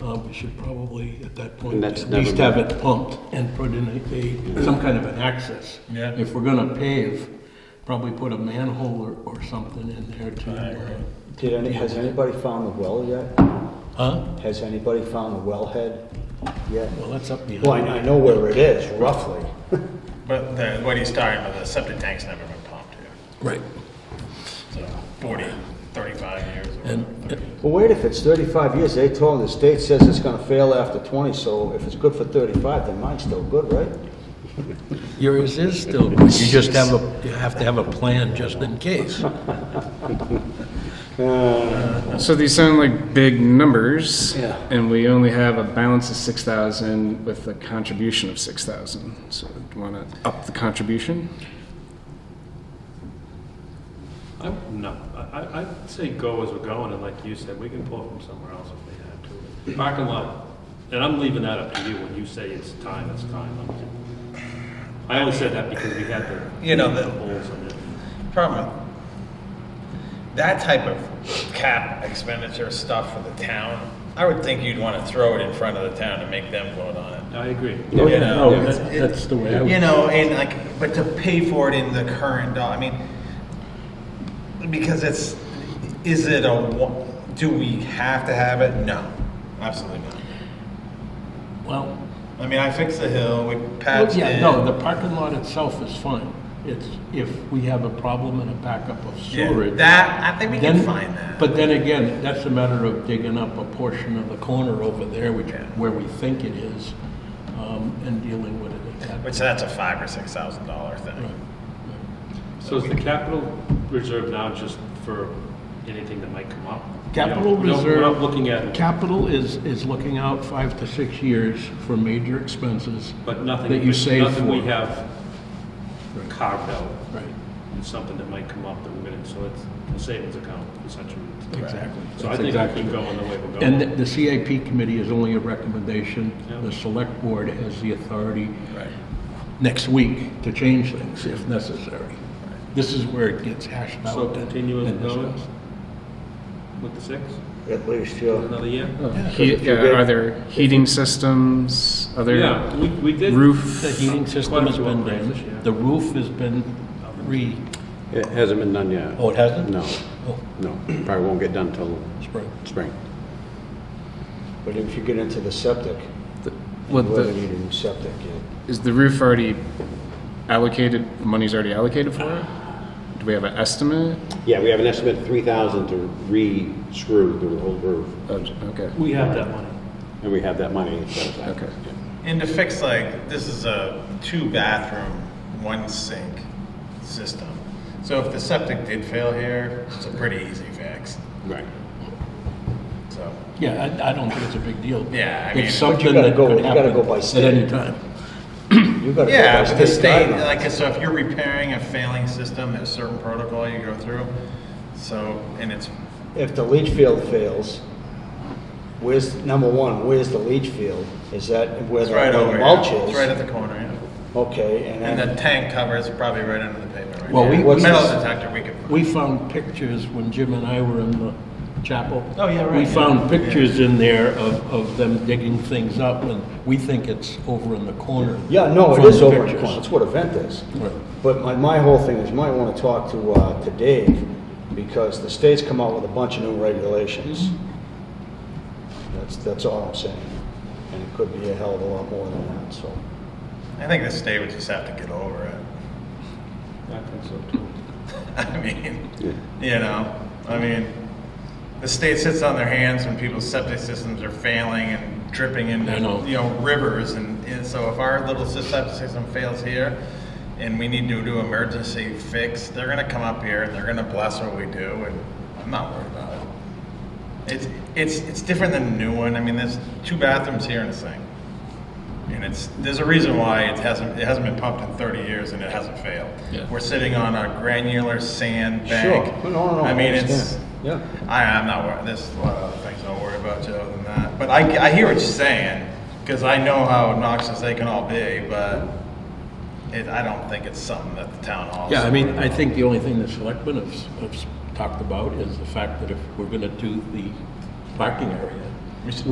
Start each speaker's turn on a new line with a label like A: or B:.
A: uh, we should probably, at that point,
B: And that's
A: at least
B: never
A: have
B: been-
A: it pumped and put in a, a, some kind of an access.
C: Yeah.
A: If we're gonna pave, probably put a manhole or, or something in there
C: I
A: to,
C: agree.
A: uh,
D: Did any, has anybody found the well yet?
A: huh?
D: Has anybody found the wellhead yet?
A: Well, that's up behind.
D: Well, I I know where it is, roughly.
C: But the, what he's talking about, the septic tank's never been pumped here.
A: Right.
C: So 40, 35 years or
A: And-
C: whatever, 30.
D: Well, wait, if it's 35 years, they told, the state says it's gonna fail after 20, so if it's good for 35, then mine's still good, right?
A: Yours is still, you just have a, you have to have a plan just in case.
E: So these sound like big numbers.
D: Yeah.
E: And we only have a balance of six thousand with a contribution of six thousand. So do you wanna up the contribution?
F: I, no, I, I- I'd say go as we're going, and like you said, we can pull from somewhere else if we have to. Parking lot, and I'm leaving that up to you, when you say it's time, it's time. I'm- I only said that because we had the.
G: You know, the-
F: the holes in it.
G: Problem. That type of cap expenditure stuff for the town, I would think you'd want to throw it in front of the town and make them vote on it.
F: I agree.
G: Oh, yeah,
A: no, that- that's the way I would-
G: You know, and like, but to pay for it in the current, doll- I mean, because it's, is it a, wa- do we have to have it? No, absolutely not.
A: Well,
G: I mean, I fixed the hill, we patched
A: yeah,
G: it.
A: no, the parking lot itself is fine. It's if we have a problem and a backup of
G: Yeah,
A: sewerage.
G: That, I think we can
A: then-
G: find that.
A: But then again, that's a matter of digging up a portion of the corner over there, which, where we think it is, um, and dealing with it at that.
G: Which that's a five or six thousand dollar thing.
F: So is the capital reserve now just for anything that might come up?
A: Capital
F: We don't-
A: reserve-
F: We're not looking at,
A: Capital is, is looking out five to six years for major expenses.
F: but nothing.
A: That you save
F: Nothing we
A: for.
F: have carved out,
A: Right,
F: is something that might come up that we're gonna, so it's a savings account, essentially.
A: exactly.
F: So I
A: That's
F: think we
A: exactly
F: keep going the way we're
A: And
F: going.
A: the- the CIP committee is only a recommendation.
F: Yeah.
A: The select board has the authority
G: Right.
A: next week to change things if necessary. This is where it gets hashed out.
F: So
A: and-
F: continue as
A: and
F: it goes
A: discussed.
F: with the six,
D: At least, yeah.
F: another year?
E: Uh, He- yeah, Are there heating systems,
F: Yeah,
E: other
F: we, we did.
E: roof?
A: The heating system has been
F: Quite a few upgrades this
A: damaged.
F: year.
A: The roof has been re,
B: It hasn't been done yet.
A: oh, it hasn't?
B: No,
A: Oh,
B: no, probably won't get done till
A: spring.
B: spring.
D: But if you get into the septic,
E: The-
D: you
E: What
D: really
E: the,
D: need a new septic, yeah.
E: is the roof already allocated, money's already allocated for it? Do we have an estimate?
B: Yeah, we have an estimate of three thousand to re-screw the whole roof,
E: Oh, Okay,
F: We have that money.
B: and we have that money. set aside.
E: okay.
G: And to fix like, this is a two bathroom, one sink system. So if the septic did fail here, it's a pretty easy fix,
B: Right.
G: so.
A: Yeah, I, I don't think it's a big deal.
G: Yeah, I mean-
A: It's
D: But you
A: something
D: gotta
A: that
D: go-
A: could
D: you gotta
A: happen
D: go by
A: at
D: state.
A: any time.
D: You gotta go
G: Yeah,
D: by
G: but the state,
D: guidelines.
G: like, so if you're repairing a failing system, there's certain protocol you go through. So, and it's,
D: If the leach field fails, where's, number one, where's the leach field? Is that where
G: it's
D: the where
G: right
D: the
G: over
D: mulch
G: here,
D: is?
G: it's right at the corner, yeah.
D: Okay, and
G: And
D: then,
G: the tank cover is probably right under the pavement right
A: Well,
G: here.
A: we-
D: What's
G: Metal
D: this?
G: detector, we could.
A: We found pictures when Jim and I were in the chapel.
G: Oh, yeah, right,
A: We
G: yeah.
A: found pictures in there of, of them digging things up, and we think it's over in the corner.
D: yeah, no, it
A: from
D: is over in the
A: pictures.
D: corner, that's what a vent is.
A: Right.
D: But my, my whole thing is, you might want to talk to, uh, to Dave, because the state's come out with a bunch of new regulations. That's, that's all I'm saying. And it could be a hell of a lot more than that, so.
G: I think the state would just have to get over it.
F: I think so too.
G: I mean, you know, I mean, the state sits on their hands when people's septic systems are failing and dripping into,
A: I know.
G: you know, rivers. And, and so if our little sys- septic system fails here and we need to do emergency fix, they're gonna come up here and they're gonna bless what we do and I'm not worried about it. It's, it's, it's different than the new one. I mean, there's two bathrooms here and a sink. And it's, there's a reason why it hasn't, it hasn't been pumped in 30 years and it hasn't failed.
A: Yeah.
G: We're sitting on a granular sand
D: Sure,
G: bank.
D: no, no, no.
G: I mean, it's,
D: understand. Yeah.
G: I, I'm not worried, there's a lot of other things I'll worry about, Joe, than that. But I, I hear what you're saying, because I know how obnoxious they can all be, but it, I don't think it's something that the town hall. is
A: Yeah, I mean,
G: worried
A: I
G: about.
A: think the only thing the selectmen have, s- have s- talked about is the fact that if we're gonna do the parking area,